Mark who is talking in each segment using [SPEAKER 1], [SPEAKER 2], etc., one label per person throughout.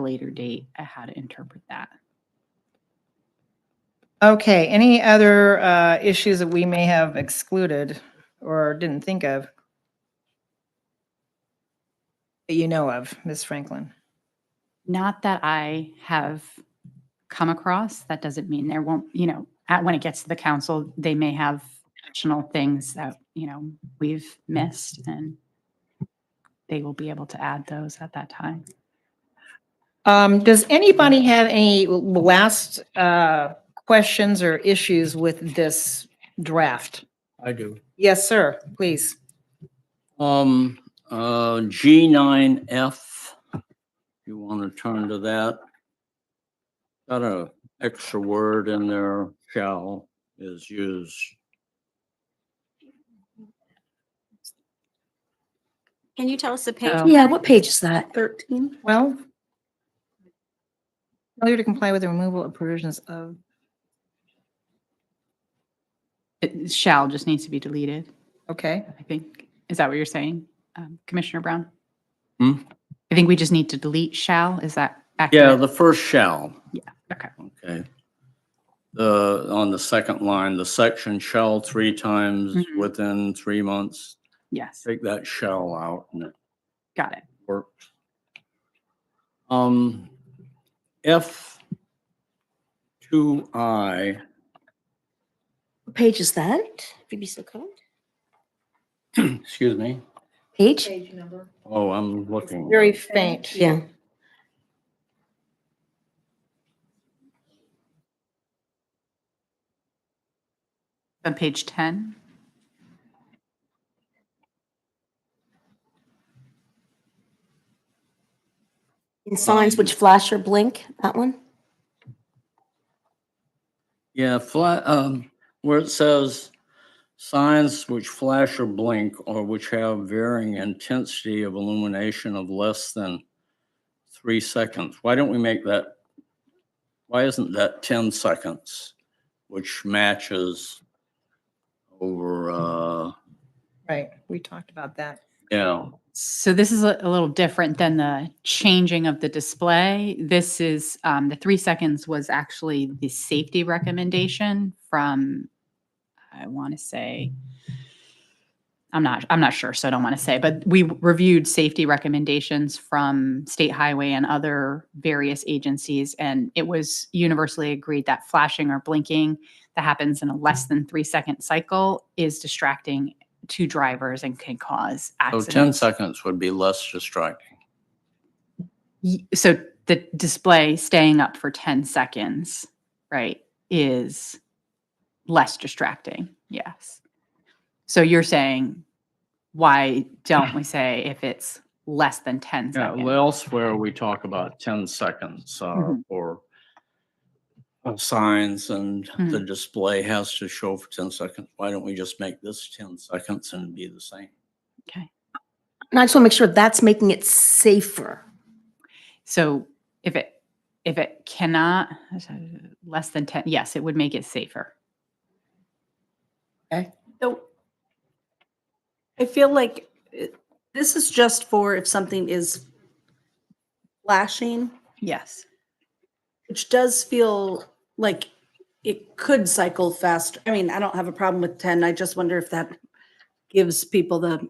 [SPEAKER 1] a later date at how to interpret that.
[SPEAKER 2] Okay, any other uh, issues that we may have excluded or didn't think of? That you know of, Ms. Franklin?
[SPEAKER 1] Not that I have come across, that doesn't mean there won't, you know, at, when it gets to the council, they may have additional things that, you know, we've missed and they will be able to add those at that time.
[SPEAKER 2] Um, Does anybody have any last uh, questions or issues with this draft?
[SPEAKER 3] I do.
[SPEAKER 2] Yes, sir, please.
[SPEAKER 3] Um, uh, G nine F, you want to turn to that? Got a extra word in there, shall is used.
[SPEAKER 4] Can you tell us the page?
[SPEAKER 1] Oh.
[SPEAKER 5] Yeah, what page is that?
[SPEAKER 4] Thirteen.
[SPEAKER 2] Well, failure to comply with the removal of provisions of,
[SPEAKER 1] It shall just needs to be deleted,
[SPEAKER 2] okay.
[SPEAKER 1] I think. Is that what you're saying, um, Commissioner Brown?
[SPEAKER 3] Hmm?
[SPEAKER 1] I think we just need to delete shall, is that accurate?
[SPEAKER 3] Yeah, the first shall.
[SPEAKER 1] Okay.
[SPEAKER 3] Okay. The, on the second line, the section shall three times
[SPEAKER 1] Mhm.
[SPEAKER 3] within three months.
[SPEAKER 1] Yes,
[SPEAKER 3] Take that shall out and it
[SPEAKER 1] got it.
[SPEAKER 3] works. Um, F two I,
[SPEAKER 5] What page is that? If you'd be so kind.
[SPEAKER 3] excuse me.
[SPEAKER 5] Page?
[SPEAKER 3] Oh, I'm looking.
[SPEAKER 2] Very faint.
[SPEAKER 5] Yeah.
[SPEAKER 1] On page 10,
[SPEAKER 5] In signs which flash or blink, that one?
[SPEAKER 3] Yeah, fla- um, where it says signs which flash or blink or which have varying intensity of illumination of less than three seconds. Why don't we make that? Why isn't that 10 seconds, which matches over, uh,
[SPEAKER 2] Right, we talked about that.
[SPEAKER 3] yeah,
[SPEAKER 1] So this is a a little different than the changing of the display. This is, um, the three seconds was actually the safety recommendation from, I want to say, I'm not, I'm not sure, so I don't want to say, but we reviewed safety recommendations from State Highway and other various agencies. And it was universally agreed that flashing or blinking that happens in a less than three second cycle is distracting to drivers and can cause
[SPEAKER 3] so
[SPEAKER 1] accidents.
[SPEAKER 3] 10 seconds would be less distracting.
[SPEAKER 1] Y- so the display staying up for 10 seconds right is less distracting yes so you're saying why don't we say if it's less than 10
[SPEAKER 3] Yeah,
[SPEAKER 1] seconds
[SPEAKER 3] well, elsewhere we talk about 10 seconds uh,
[SPEAKER 1] Mhm.
[SPEAKER 3] for uh, signs and the display has to show for 10 seconds. Why don't we just make this 10 seconds and be the same?
[SPEAKER 1] okay
[SPEAKER 5] And I just want to make sure that's making it safer.
[SPEAKER 1] so if it if it cannot less than 10 yes it would make it safer
[SPEAKER 4] So I feel like it- this is just for if something is flashing,
[SPEAKER 1] yes
[SPEAKER 4] which does feel like it could cycle fast. I mean, I don't have a problem with ten. I just wonder if that gives people the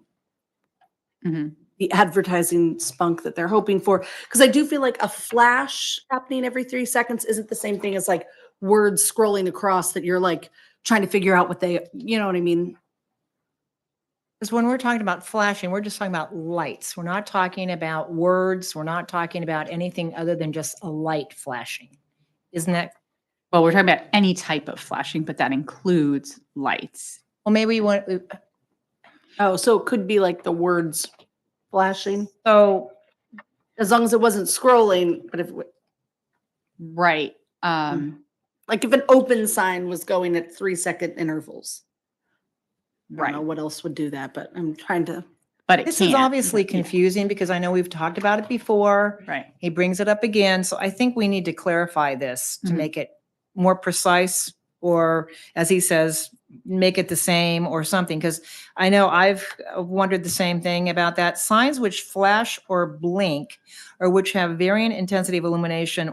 [SPEAKER 1] hmm
[SPEAKER 4] the advertising spunk that they're hoping for. Because I do feel like a flash happening every three seconds isn't the same thing as like words scrolling across that you're like trying to figure out what they, you know what I mean?
[SPEAKER 2] Because when we're talking about flashing, we're just talking about lights. We're not talking about words. We're not talking about anything other than just a light flashing. Isn't that,
[SPEAKER 1] well we're talking about any type of flashing but that includes lights
[SPEAKER 2] well, maybe we want, uh,
[SPEAKER 4] Oh, so it could be like the words flashing
[SPEAKER 2] so,
[SPEAKER 4] as long as it wasn't scrolling, but if it w-
[SPEAKER 1] right um
[SPEAKER 4] like if an open sign was going at three second intervals. I
[SPEAKER 1] right
[SPEAKER 4] don't know what else would do that, but I'm trying to.
[SPEAKER 1] but it
[SPEAKER 2] this
[SPEAKER 1] can't.
[SPEAKER 2] is obviously
[SPEAKER 1] Yeah.
[SPEAKER 2] confusing because I know we've talked about it before.
[SPEAKER 1] right
[SPEAKER 2] He brings it up again. So I think we need to clarify this to
[SPEAKER 1] Mhm.
[SPEAKER 2] make it more precise or, as he says, make it the same or something, because I know I've wondered the same thing about that. Signs which flash or blink or which have varying intensity of illumination